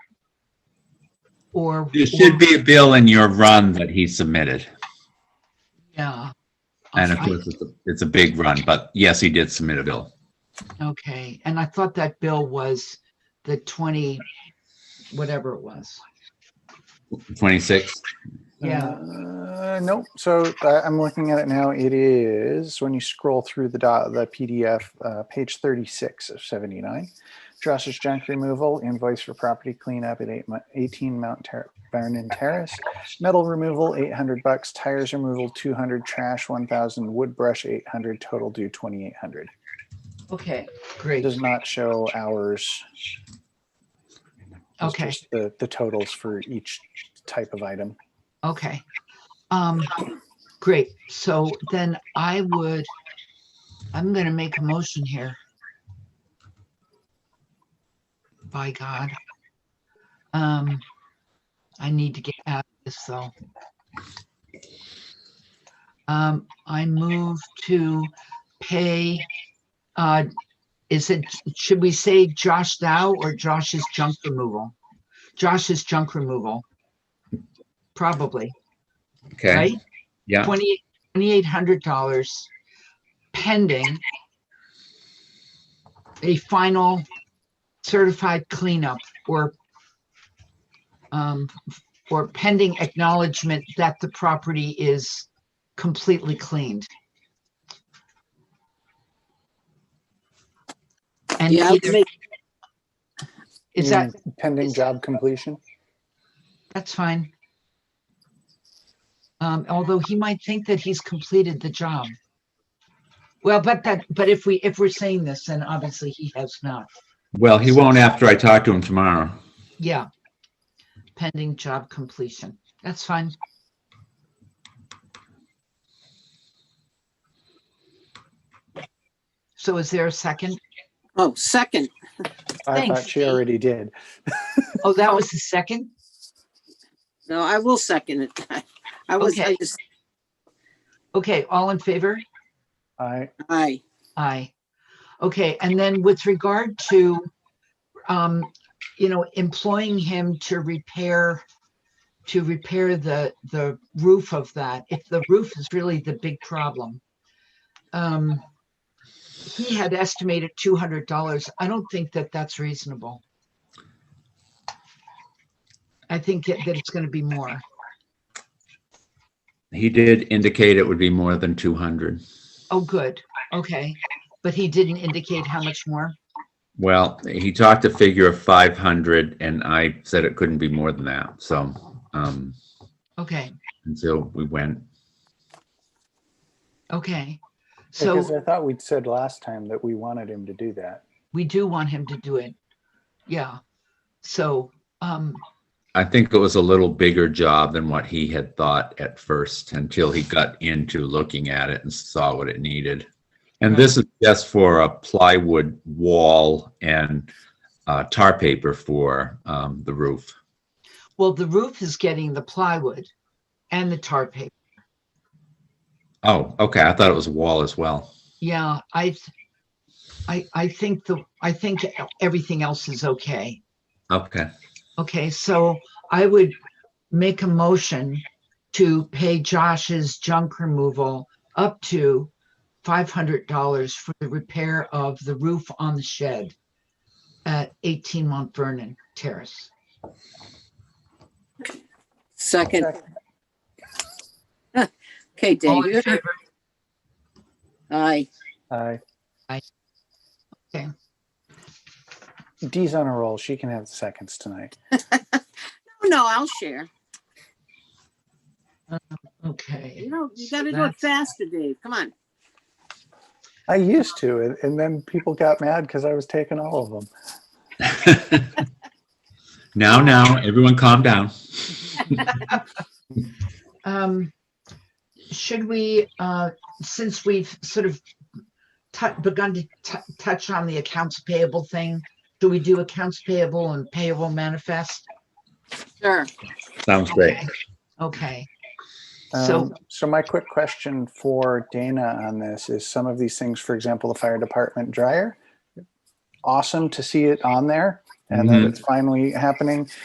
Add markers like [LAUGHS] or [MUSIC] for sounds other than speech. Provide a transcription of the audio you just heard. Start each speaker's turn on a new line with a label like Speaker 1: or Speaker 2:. Speaker 1: or.
Speaker 2: There should
Speaker 1: or-
Speaker 2: be a bill in your run that he submitted.
Speaker 1: Yeah.
Speaker 2: And of
Speaker 1: Okay.
Speaker 2: course, it's a, it's a big run, but yes, he did submit a bill.
Speaker 1: Okay, and I thought that bill was the twenty, whatever it was.
Speaker 2: 26.
Speaker 1: Yeah.
Speaker 3: Uh, nope. So uh, I'm looking at it now. It is when you scroll through the dot, the PDF, uh, page 36 of 79. Josh's junk removal, invoice for property cleanup at eight, Mo- 18 Mount Ter- Vernon Terrace, metal removal 800 bucks, tires removal 200, trash 1,000, wood brush 800, total due 2,800.
Speaker 1: Okay,
Speaker 3: It
Speaker 1: great.
Speaker 3: does not show hours. It's
Speaker 1: Okay,
Speaker 3: just The, the totals for each type of item.
Speaker 1: okay. Um, great. So then I would, I'm gonna make a motion here. By God. Um, I need to get out of this though. Um, I move to pay, uh, is it, should we say Josh Dow or Josh's junk removal? Josh's junk removal. Probably,
Speaker 2: Okay.
Speaker 1: right?
Speaker 2: Yeah.
Speaker 1: Twenty, twenty-eight hundred dollars pending a final certified cleanup or um, or pending acknowledgement that the property is completely cleaned. And
Speaker 4: Yeah, I would
Speaker 1: either-
Speaker 4: make-
Speaker 1: is
Speaker 3: You
Speaker 1: that,
Speaker 3: mean Pending
Speaker 1: is that-
Speaker 3: job completion.
Speaker 1: that's fine. Um, although he might think that he's completed the job. Well, but that, but if we, if we're saying this, then obviously he has not.
Speaker 2: Well, he won't after I talk to him tomorrow.
Speaker 1: Yeah. Pending job completion. That's fine. So is there a second?
Speaker 4: Oh, second.
Speaker 3: I
Speaker 5: Thanks,
Speaker 3: thought she
Speaker 5: Steve.
Speaker 3: already did.
Speaker 1: Oh, that was the second?
Speaker 4: No, I will second it. [LAUGHS] I was, I
Speaker 1: Okay.
Speaker 4: just,
Speaker 1: Okay, all in favor?
Speaker 3: I,
Speaker 4: aye.
Speaker 1: Aye. Okay, and then with regard to, um, you know, employing him to repair, to repair the, the roof of that, if the roof is really the big problem. Um, he had estimated two hundred dollars. I don't think that that's reasonable. I think that that it's gonna be more.
Speaker 2: He did indicate it would be more than 200.
Speaker 1: Oh, good, okay. But he didn't indicate how much more?
Speaker 2: Well, he talked a figure of 500 and I said it couldn't be more than that. So, um,
Speaker 1: Okay,
Speaker 2: and so we went,
Speaker 1: okay. So.
Speaker 3: because I thought we'd said last time that we wanted him to do that.
Speaker 1: we do want him to do it. Yeah. So, um,
Speaker 2: I think it was a little bigger job than what he had thought at first until he got into looking at it and saw what it needed. And this is just for a plywood wall and uh, tar paper for um, the roof.
Speaker 1: well, the roof is getting the plywood and the tar paper.
Speaker 2: Oh, okay. I thought it was a wall as well.
Speaker 1: Yeah, I, th- I, I think the, I think everything else is okay.
Speaker 2: Okay.
Speaker 1: Okay, so I would make a motion to pay Josh's junk removal up to five hundred dollars for the repair of the roof on the shed at eighteen Mont Vernon Terrace.
Speaker 4: Second. [LAUGHS] Okay,
Speaker 1: All
Speaker 4: Dave.
Speaker 1: in
Speaker 4: you're-
Speaker 1: favor?
Speaker 4: Aye.
Speaker 3: I.
Speaker 1: I- okay.
Speaker 3: Dee's on a roll. She can have the seconds tonight.
Speaker 4: No, No, I'll share.
Speaker 1: Okay,
Speaker 4: You know, you gotta do it
Speaker 1: That's-
Speaker 4: faster, Dave. Come on.
Speaker 3: I used to, and- and then people got mad because I was taking all of them.
Speaker 2: now, now, everyone calm down.
Speaker 1: um, should we, uh, since we've sort of tou- begun to tou- touch on the accounts payable thing, do we do accounts payable and payable manifest?
Speaker 4: Sure.
Speaker 2: Sounds great.
Speaker 1: Okay. Okay, So-
Speaker 3: Um, so my quick question for Dana on this is some of these things, for example, the fire department dryer. Awesome to see it on there and that
Speaker 2: Mhm.
Speaker 3: it's finally happening.